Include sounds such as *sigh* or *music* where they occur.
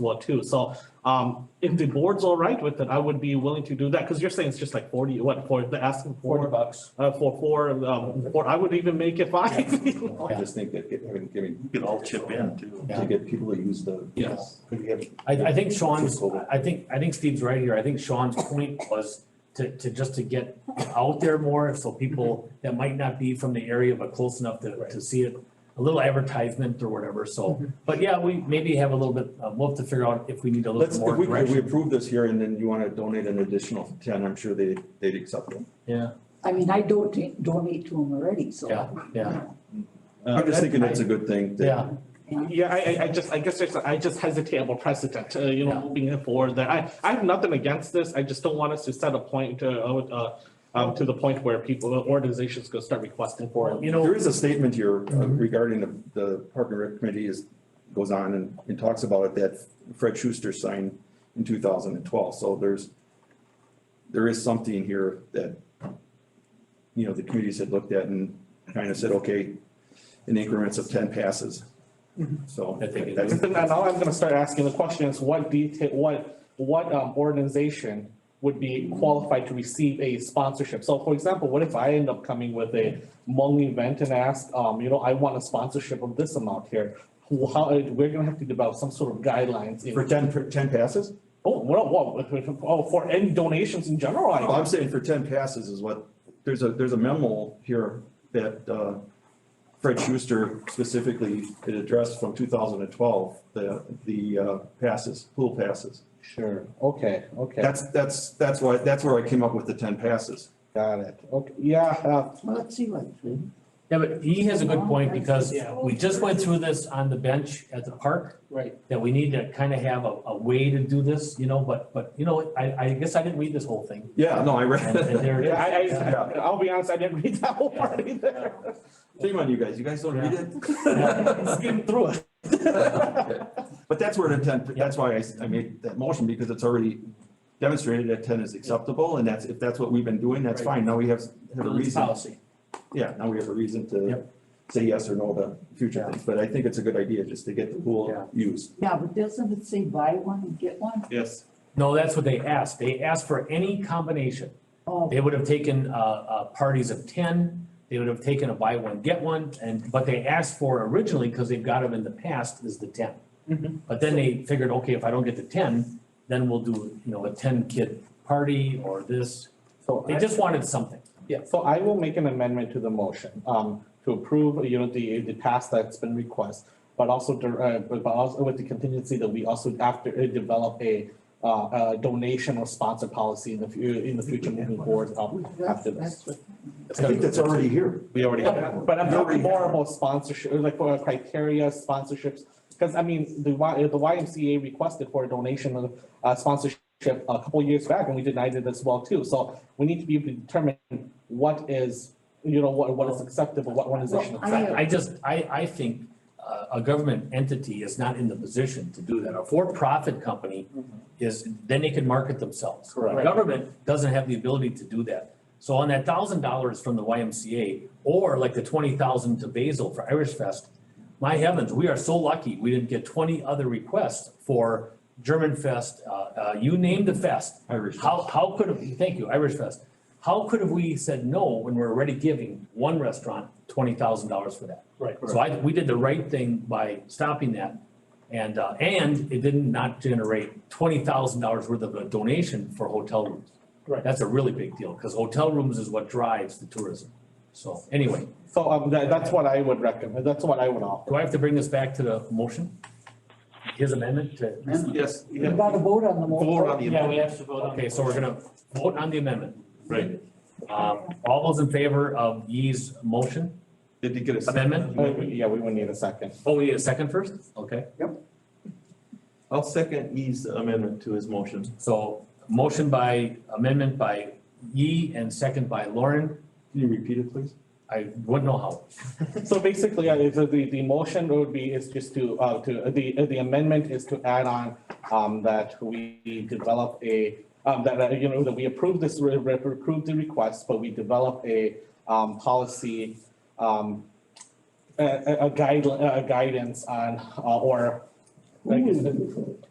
law too. So um, if the board's all right with it, I would be willing to do that, because you're saying it's just like forty, what, for, they're asking Forty for, bucks. uh, for four, um, or I would even make it five. you know? *laughs* I just think that, I mean, I mean. You could all chip in too. To get people to use the. Yes. Could we have- I, I think Sean's, I think, I think Steve's right here. I think Sean's point was to, to just to get out there more, so people Mm-hmm. that might not be from the area, but close enough to, to see it. A little advertisement or whatever, Mm-hmm. so, but yeah, we maybe have a little bit, uh, we'll have to figure out if we need a Let's, little if more we, if we direction. approve this here and then you wanna donate an additional ten, I'm sure they, they'd accept them. Yeah, I mean, I don't donate to them already, so. Yeah, yeah. Uh, I'm just thinking it's a good thing. that- yeah, Uh, Yeah, I, I, I just, I guess, there's- I just hesitate about precedent, uh, you know, Yeah. moving it forward, that I, I have nothing against this, I just don't want us to set a point, uh, uh, um, to the point where people, organizations go start requesting for it. you know, There is a statement here uh, Mhm. regarding the, the Park and Rec Committee is, goes on and, and talks about it, that Fred Schuster signed in two thousand and twelve, so there's, there is something here that, you know, the committees had looked at and kind of said, okay, in increments of ten passes. Mm-hmm. So. I think it that's- And then now I'm gonna start asking the questions, what detail, what, what um organization would be qualified to receive a sponsorship? So for example, what if I end up coming with a Hmong event and ask, um, you know, I want a sponsorship of this amount here? Who- How, uh, we're gonna have to develop some sort of guidelines *laughs* For in, ten, for ten passes? oh, well, well, oh, for any donations in general, I No, I'm saying for ten passes is what, there's a, there's a memo here that, uh, Fred Schuster specifically had addressed from two thousand and twelve, the, the, uh, passes, pool passes. Sure, okay, okay, That's, that's, that's why, that's where I came up with the ten passes. got it, okay. Yeah, uh, Well, let's see what. yeah, but he has a good point, because we just went through this on the bench at the park. right, that we need to kind of have a, a way to do this, you know, but, but, you know, I, I guess I didn't read this whole thing. Yeah, no, I And, and read, there it I, is. I, Yeah. I'll be honest, I didn't read that whole part either. *laughs* shame on you guys, you guys don't *laughs* read Yeah. it? Skim through it. *laughs* But that's where the ten, that's why I, s- I made that motion, because it's already demonstrated that ten is acceptable, and that's, if that's what we've been doing, that's fine, now we have, have a It's reason. Policy. Yeah, now we have a reason to Yep. say yes or no to future Yeah. things, but I think it's a good idea just to get the Yeah. pool used. Yeah, but doesn't it say buy one and get one? Yes. No, that's what they asked. They asked for any combination. Oh, They would have taken, uh, uh, parties of ten, they would have taken a buy one, get one, and, but they asked for originally, because they've got them in the past, is the ten. Mhm. But then they figured, okay, if I don't get the ten, then we'll do, you know, a ten kid party or this. So They I- just wanted something. Yeah, so I will make an amendment to the motion, um, to approve, you know, the, the task that's been requested, but also, to, uh, but but also with the contingency that we also after, uh, develop a, uh, a donation or sponsor policy in the fu- in the future moving forward, um, that's, after this. that's what. I think that's already here. We already have Yeah. that, but I'm We talking already more have. about sponsorship, like for criteria sponsorships, because I mean, the Y, the YMCA requested for a donation of uh sponsorship a couple years back, and we denied it as well too, so we need to be able to determine what is, you know, what what is acceptable, what one is not Well, I- acceptable. I just, I, I think uh, a government entity is not in the position to do that. A for-profit company is, then they can market themselves. Correct. Government doesn't have the ability to do that. So on that thousand dollars from the YMCA, or like the twenty thousand to Basil for Irish Fest, my heavens, we are so lucky, we didn't get twenty other requests for German Fest, uh, uh, you name the fest. Irish. How, how could, have- thank you, Irish Fest. How could have we said no when we're already giving one restaurant twenty thousand dollars for that? Right. So I, we did the right thing by stopping that. And, uh, and it did not generate twenty thousand dollars worth of a donation for hotel rooms. Right. That's a really big deal, because hotel rooms is what drives the tourism. So anyway, So um, that that's what I would recommend, that's what I would offer. do I have to bring this back to the motion? His amendment to? Yes. You gotta vote on the Forward on motion. the amendment. have to vote. Okay, so we're gonna vote on the amendment. Right. Um, all those in favor of Yee's motion? Did you get a? second? Amendment? Uh, Yeah, we would need a second. Oh, we need a second first? Okay. I'll second E's amendment to his motion. So motion by amendment by Yee and second by Lauren. Can you repeat it, please? I wouldn't know how. So basically, uh, if the, the the motion would be is just to, uh, to, uh, the, uh, the amendment is to add on, um, that we develop a, um, that, uh, you know, that we approve this, re- re- approve the request, but we develop a, um, policy, um, a, a, a guide, a guidance on, uh, or, like, Who is it?